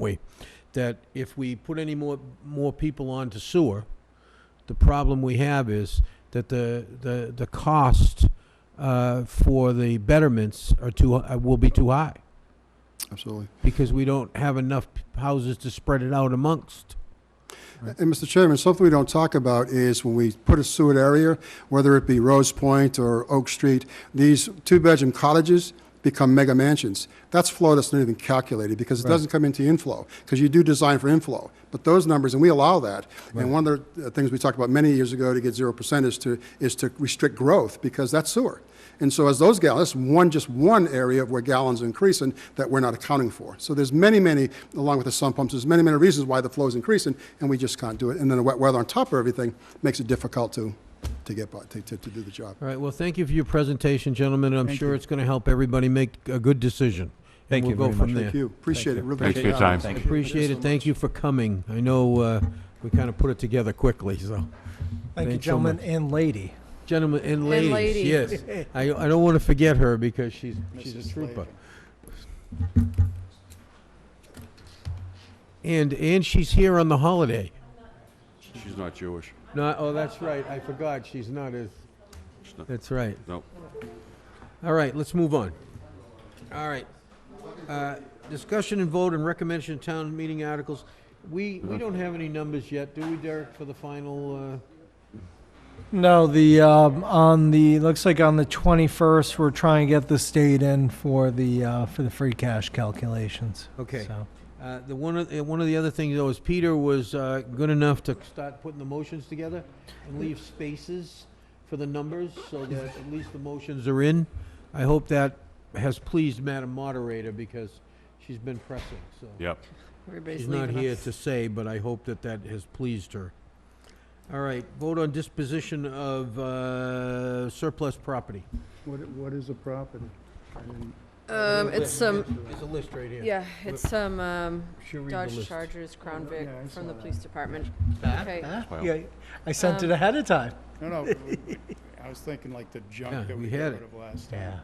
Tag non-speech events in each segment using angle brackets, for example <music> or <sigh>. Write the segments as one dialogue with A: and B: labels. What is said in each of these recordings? A: way, that if we put any more, more people onto sewer, the problem we have is that the, the, the cost uh, for the betterments are too, uh, will be too high,
B: Absolutely.
A: because we don't have enough houses to spread it out amongst.
B: And Mr. Chairman, something we don't talk about is when we put a sewer area, whether it be Rose Point or Oak Street, these two-bedroom cottages become mega mansions. That's flow that's not even calculated because it doesn't come into inflow, because you do design for inflow. But those numbers, and we allow that. And one of the uh, things we talked about many years ago to get zero percent is to, is to restrict growth because that's sewer. And so as those gallons, that's one, just one area where gallons increase and that we're not accounting for. So there's many, many, along with the sump pumps, there's many, many reasons why the flow is increasing and we just can't do it. And then the wet weather on top of everything makes it difficult to, to get, by to, to to do the job.
A: All right, well, thank you for your presentation, gentlemen, and I'm
C: Thank
A: sure
C: you.
A: it's going to help everybody make a good decision.
C: Thank you very
A: And we'll go
C: much.
A: from there.
B: Thank you, appreciate
C: you.
B: it. Really
D: Thanks for your
B: appreciate it.
D: time.
C: Thank you.
A: Appreciate it, thank you for coming. I know uh, we kind of put it together quickly, so.
E: Thank you,
A: Thanks so
E: gentlemen
A: much.
E: and lady.
A: Gentlemen and ladies,
F: lady.
A: yes. <laughs> I I don't want to forget her because she's, she's a
B: Mrs.
A: trooper.
B: Slavin.
A: And, and she's here on the holiday.
D: She's not Jewish.
A: No, oh, that's right, I forgot, she's not as,
D: not.
A: that's right.
D: No.
A: All right, let's move on. All right. Uh, Discussion and vote and recommendation of town meeting articles. We, we don't have any numbers yet, do we, Derek, for the final, uh?
E: No, the, um, on the, looks like on the 21st, we're trying to get the state in for the, uh, for the free cash calculations.
A: Okay.
E: So,
A: Uh, The one, of- uh, one of the other things though is Peter was uh, good enough to start putting the motions together and leave spaces for the numbers so that at least the motions are in. I hope that has pleased Madam Moderator because she's been pressing, so.
D: Yep.
F: Everybody's
A: She's not
F: leaving
A: here
F: us.
A: to say, but I hope that that has pleased her. All right, vote on disposition of uh, surplus property.
G: What, what is a property? I didn't-
F: Um, it's some,
A: There's a list right here.
F: yeah, it's some, um,
A: She'll read the
F: Dodge
A: list.
F: Chargers, Crown
G: Yeah,
F: Vic
G: I saw
F: from the
G: that.
F: police department. Okay.
D: Wow.
E: Yeah, I sent it ahead of time.
G: No,
A: <laughs>
G: no, we- we- I was thinking like the
A: Yeah,
G: junk that
A: we
G: we got
A: had
G: rid
A: it.
G: of last time.
E: Yeah.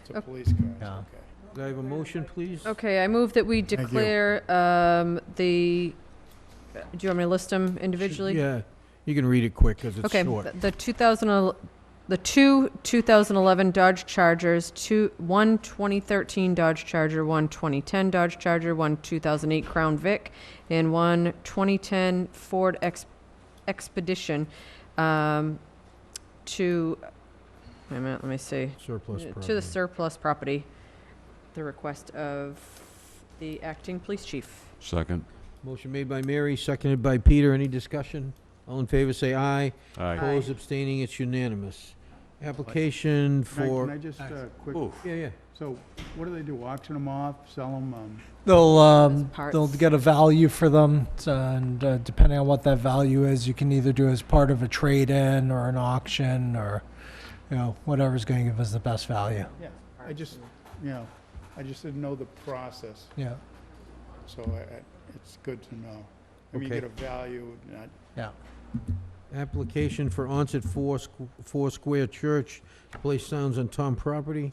G: It's a police car,
E: Yeah.
G: okay.
A: Do I have a motion, please?
F: Okay, I move that we
B: Thank you.
F: declare, um, the, do you want me to list them individually?
A: Yeah, you can read it quick, because it's
F: Okay,
A: short.
F: th- the 2000, the two 2011 Dodge Chargers, two, one 2013 Dodge Charger, one 2010 Dodge Charger, one 2008 Crown Vic, and one 2010 Ford Ex- Expedition um, to, wait a minute, let me see,
A: Surplus property.
F: to the surplus property, the request of the acting police chief.
D: Second.
A: Motion made by Mary, seconded by Peter. Any discussion? All in favor, say aye.
D: Aye.
A: Opposed, abstaining, it's unanimous. Application
G: Can I- Can I
A: for,
G: just, uh, quick,
D: Oof.
A: yeah, yeah.
G: so what do they do, auction them off, sell them, um,
E: They'll, um,
F: parts.
E: they'll get a value for them, t- and uh, depending on what that value is, you can either do as part of a trade-in or an auction, or, you know, whatever's gonna give us the best value,
G: yeah, I just, you know, I just didn't know the process,
E: yeah.
G: so I, I, it's good to know. I mean, you
A: Okay.
G: get a value, not,
A: Application for onset four, squ- four square church to place signs on town property.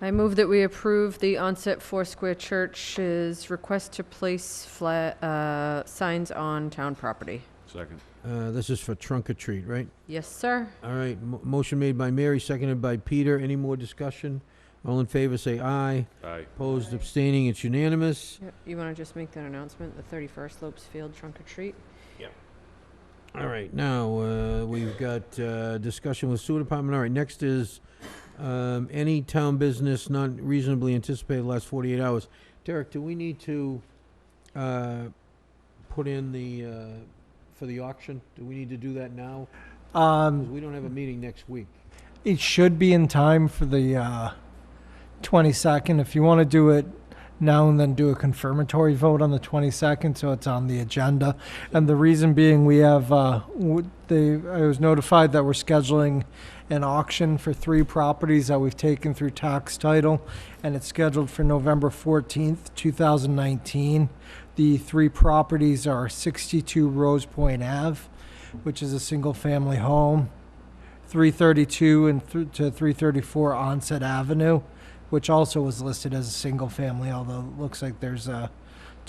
F: I move that we approve the onset Foursquare Church's request to place fla- uh, signs on town property.
D: Second.
A: Uh, this is for trunk or treat, right?
F: Yes, sir.
A: All right, mo- motion made by Mary, seconded by Peter. Any more discussion? All in favor, say aye.
D: Aye.
A: Opposed, abstaining, it's unanimous.
F: You want to just make that announcement, the 31st Lopes Field trunk or treat?
A: All right, now, uh, we've got, uh, discussion with sewer department. All right, next is, um, any town business not reasonably anticipated last forty-eight hours. Derek, do we need to, uh, put in the, uh, for the auction? Do we need to do that now?
E: Um,
A: 'Cause we don't have a meeting next week.
E: It should be in time for the uh, 22nd. If you want to do it now and then do a confirmatory vote on the 22nd, so it's on the agenda. And the reason being, we have, uh, w- they, I was notified that we're scheduling an auction for three properties that we've taken through tax title, and it's scheduled for November 14th, 2019. The three properties are 62 Rose Point Ave, which is a single-family home, 332 and th- to 334 Onset Avenue, which also was listed as a single family, although it looks like there's a